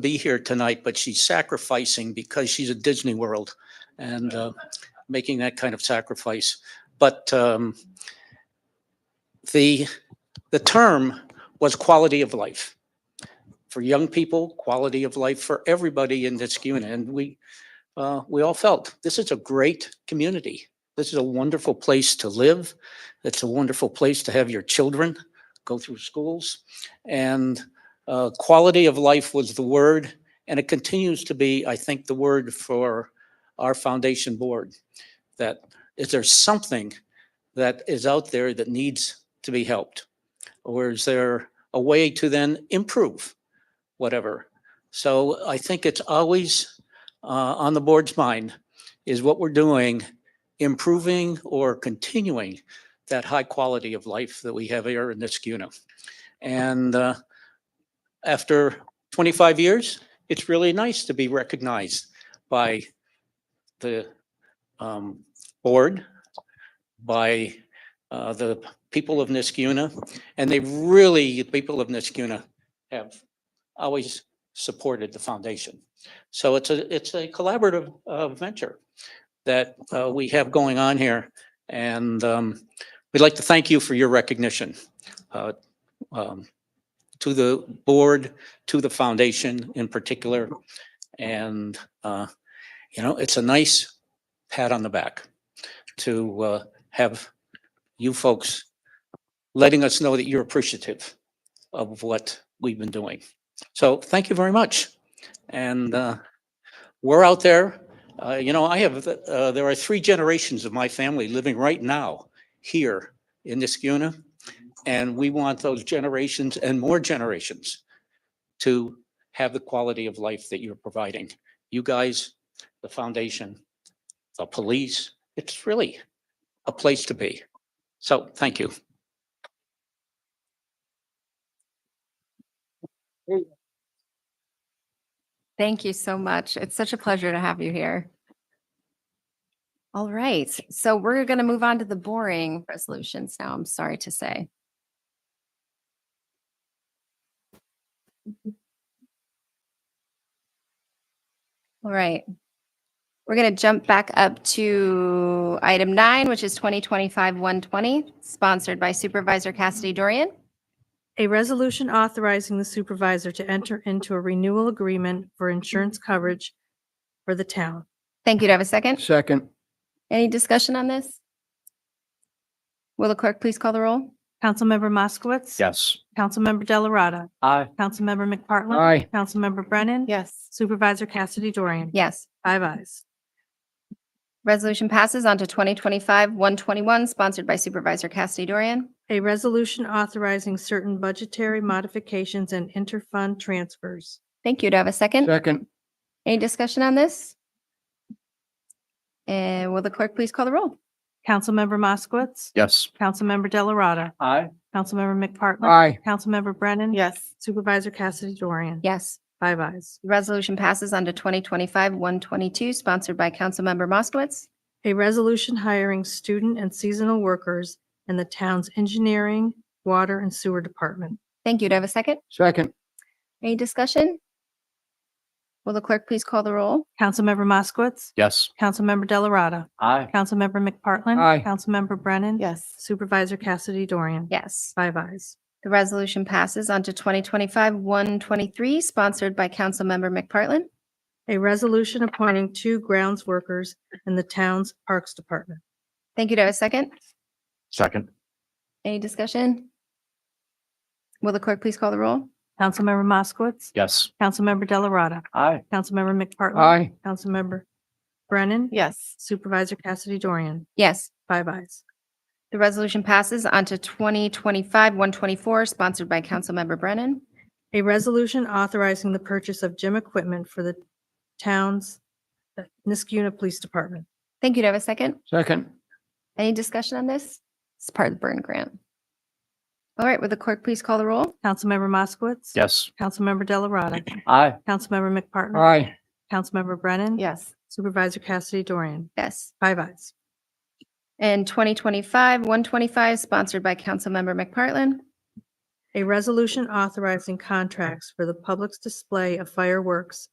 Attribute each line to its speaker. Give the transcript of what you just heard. Speaker 1: be here tonight, but she's sacrificing because she's at Disney World and uh, making that kind of sacrifice. But um, the, the term was quality of life. For young people, quality of life for everybody in this unit. And we, uh, we all felt, this is a great community. This is a wonderful place to live. It's a wonderful place to have your children go through schools. And uh, quality of life was the word, and it continues to be, I think, the word for our foundation board. That is there something that is out there that needs to be helped? Or is there a way to then improve whatever? So I think it's always uh, on the board's mind is what we're doing, improving or continuing that high quality of life that we have here in this unit. And uh, after 25 years, it's really nice to be recognized by the um, board, by uh, the people of Niskuna. And they really, the people of Niskuna have always supported the foundation. So it's a, it's a collaborative uh, venture that uh, we have going on here. And um, we'd like to thank you for your recognition uh, um, to the board, to the foundation in particular. And, uh, you know, it's a nice pat on the back to, uh, have you folks letting us know that you're appreciative of what we've been doing. So thank you very much. And, uh, we're out there. Uh, you know, I have, uh, there are three generations of my family living right now here in this unit. And we want those generations and more generations to have the quality of life that you're providing. You guys, the foundation, the police, it's really a place to be. So thank you.
Speaker 2: Thank you so much. It's such a pleasure to have you here. All right, so we're going to move on to the boring resolutions now, I'm sorry to say. All right. We're going to jump back up to item nine, which is 2025-120, sponsored by Supervisor Cassidy Dorian.
Speaker 3: A resolution authorizing the supervisor to enter into a renewal agreement for insurance coverage for the town.
Speaker 2: Thank you. Do I have a second?
Speaker 4: Second,
Speaker 2: Any discussion on this? Will the clerk please call the roll?
Speaker 3: Councilmember Moskowitz.
Speaker 5: Yes.
Speaker 3: Councilmember Delarada.
Speaker 5: Aye.
Speaker 3: Councilmember McPartlin.
Speaker 4: aye,
Speaker 3: Councilmember Brennan.
Speaker 2: Yes.
Speaker 3: Supervisor Cassidy Dorian.
Speaker 2: Yes.
Speaker 3: Five ayes.
Speaker 2: Resolution passes on to 2025-121, sponsored by Supervisor Cassidy Dorian.
Speaker 3: A resolution authorizing certain budgetary modifications and interfund transfers.
Speaker 2: Thank you. Do I have a second?
Speaker 4: second,
Speaker 2: Any discussion on this? And will the clerk please call the roll?
Speaker 3: Councilmember Moskowitz.
Speaker 5: Yes.
Speaker 3: Councilmember Delarada.
Speaker 5: Aye.
Speaker 3: Councilmember McPartlin.
Speaker 4: aye,
Speaker 3: Councilmember Brennan.
Speaker 6: Yes.
Speaker 3: Supervisor Cassidy Dorian.
Speaker 2: Yes.
Speaker 3: Five ayes.
Speaker 2: Resolution passes on to 2025-122, sponsored by Councilmember Moskowitz.
Speaker 3: A resolution hiring student and seasonal workers in the town's engineering, water, and sewer department.
Speaker 2: Thank you. Do I have a second?
Speaker 4: second,
Speaker 2: Any discussion? Will the clerk please call the roll?
Speaker 3: Councilmember Moskowitz.
Speaker 5: Yes.
Speaker 3: Councilmember Delarada.
Speaker 5: Aye.
Speaker 3: Councilmember McPartlin.
Speaker 4: Aye.
Speaker 3: Councilmember Brennan.
Speaker 6: Yes.
Speaker 3: Supervisor Cassidy Dorian.
Speaker 2: Yes.
Speaker 3: Five ayes.
Speaker 2: The resolution passes on to 2025-123, sponsored by Councilmember McPartlin.
Speaker 3: A resolution appointing two grounds workers in the town's parks department.
Speaker 2: Thank you. Do I have a second?
Speaker 5: Second.
Speaker 2: Any discussion? Will the clerk please call the roll?
Speaker 3: Councilmember Moskowitz.
Speaker 5: Yes.
Speaker 3: Councilmember Delarada.
Speaker 5: Aye.
Speaker 3: Councilmember McPartlin.
Speaker 4: aye,
Speaker 3: Councilmember Brennan.
Speaker 6: Yes.
Speaker 3: Supervisor Cassidy Dorian.
Speaker 2: Yes.
Speaker 3: Five ayes.
Speaker 2: The resolution passes on to 2025-124, sponsored by Councilmember Brennan.
Speaker 3: A resolution authorizing the purchase of gym equipment for the town's uh, Niskuna Police Department.
Speaker 2: Thank you. Do I have a second?
Speaker 4: second,
Speaker 2: Any discussion on this? It's part of the burn grant. All right, will the clerk please call the roll?
Speaker 3: Councilmember Moskowitz.
Speaker 5: Yes.
Speaker 3: Councilmember Delarada.
Speaker 5: Aye.
Speaker 3: Councilmember McPartland,
Speaker 4: aye,
Speaker 3: Councilmember Brennan.
Speaker 6: Yes.
Speaker 3: Supervisor Cassidy Dorian.
Speaker 2: Yes.
Speaker 3: Five ayes.
Speaker 2: And 2025-125, sponsored by Councilmember McPartlin.
Speaker 3: A resolution authorizing contracts for the public's display of fireworks